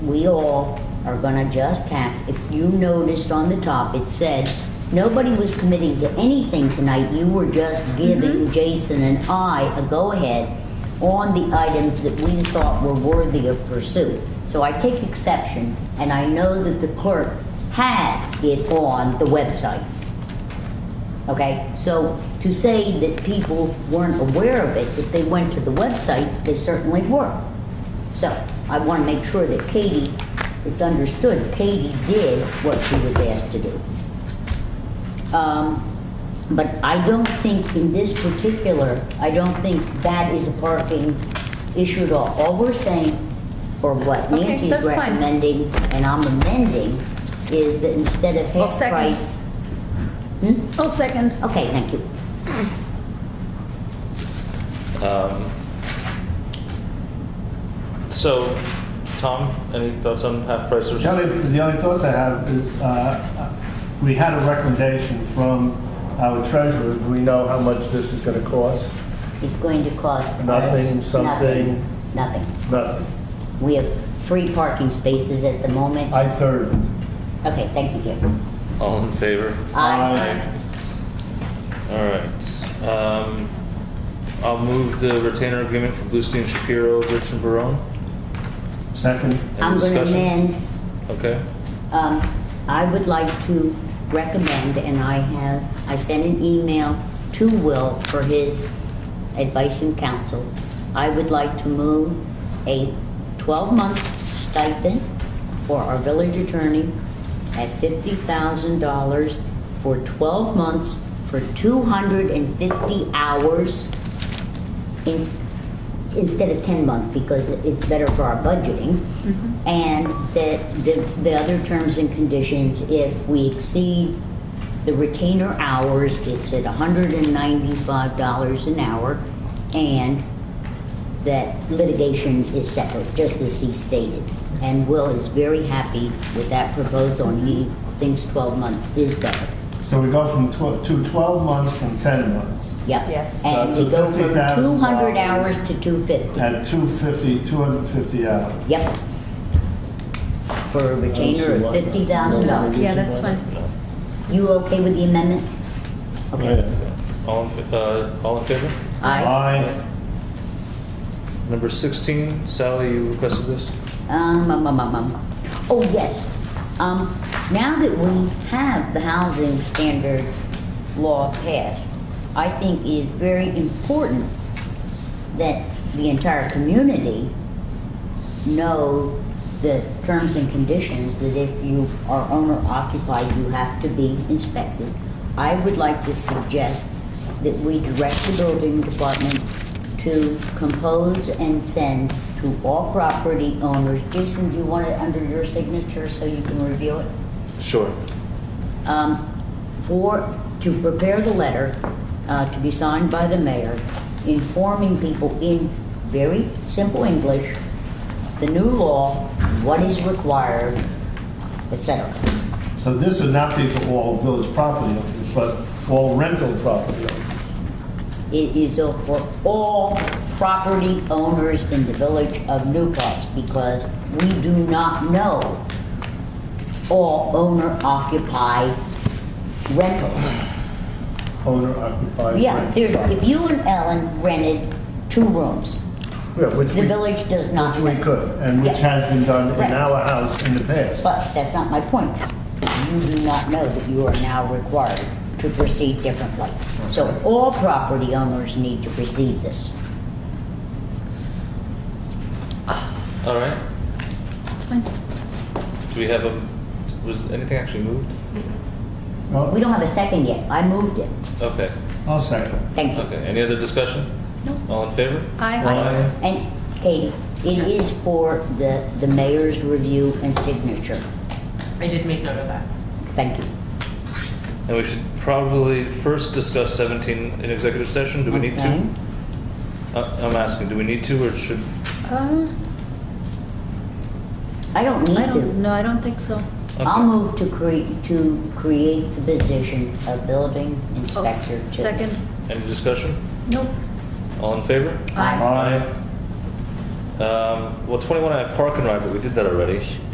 we all are gonna just have, if you noticed on the top, it said, nobody was committing to anything tonight, you were just giving Jason and I a go-ahead on the items that we thought were worthy of pursuit. So I take exception, and I know that the clerk had it on the website. Okay, so to say that people weren't aware of it, if they went to the website, they certainly were. So I want to make sure that Katie, it's understood, Katie did what she was asked to do. Um, But I don't think in this particular, I don't think that is a parking issue at all. All we're saying, or what Okay, Nancy is that's fine. recommending, and I'm amending, is that instead of I'll half second. price. Hmm? I'll second. Okay, thank you. Um, So, Tom, any thoughts on half price or? The only, the only thoughts I have is, uh, we had a recommendation from our treasurer. Do we know how much this is going to cost? It's going to cost. us Nothing, something. Nothing, nothing. Nothing. We have free parking spaces at the moment. I third. Okay, thank you, Gary. All in favor? Aye. All right. Um, I'll move the retainer agreement for Bluestein Shapiro, Rich and Barone. Second. Any I'm going to discussion? amend, Okay, um, I would like to recommend, and I have, I sent an email to Will for his advice and counsel. I would like to move a 12-month stipend for our village attorney at $50,000 for 12 months for 250 hours in- instead of 10 month because it's better for our budgeting. And that the, the other terms and conditions, if we exceed the retainer hours, it's at $195 an hour. And that litigation is separate, just as he stated. And Will is very happy with that proposal and he thinks 12 months is better. So we go from 12, to 12 months from 10 months. Yep. Yes. And That's a we go from $50,000. 200 hours to 250. At 250, 250 hours. Yep. For a retainer of fifty thousand dollars. Yeah, that's fine. You okay with the amendment? Okay. all in, fa- uh, all in favor? Aye. Aye. Number sixteen, Sally, you requested this? Um, um, um, um, um. Oh, yes. Um, now that we have the housing standards law passed, I think it is very important that the entire community know the terms and conditions that if you are owner occupied, you have to be inspected. I would like to suggest that we direct the building department to compose and send to all property owners. Jason, do you want it under your signature so you can review it? Sure. um, for, to prepare the letter uh, to be signed by the mayor, informing people in very simple English, the new law, what is required, et cetera. So this would not be for all village property owners, but all rental property owners. It is a- for all property owners in the village of Newcastle because we do not know all owner occupied rentals. owner occupied. Yeah, there, if you and Ellen rented two rooms, Yeah, which The we, village does not. which we rent. could, and which Yeah. has been done Right. in our house in the past. But that's not my point. You do not know that you are now required to proceed differently. So all property owners need to receive this. All right. That's fine. Do we have a, was anything actually moved? We Well, don't have a second yet. I moved it. Okay, I'll second. Thank you. okay. Any other discussion? No. All in favor? Aye. And Katie, it is for the, the mayor's review and signature. I did make note of that. Thank you. And we should probably first discuss seventeen in executive session. Do we need Okay. to? Uh, I'm asking, do we need to or should, Uh, I don't I need don't, to. no, I don't think so. I'll Okay. move to create, to create the position of building I'll s- inspector to. Second. any discussion? Nope. All in favor? Aye. Aye. Uh, Um, well, 21, I have park and ride, but we did that already.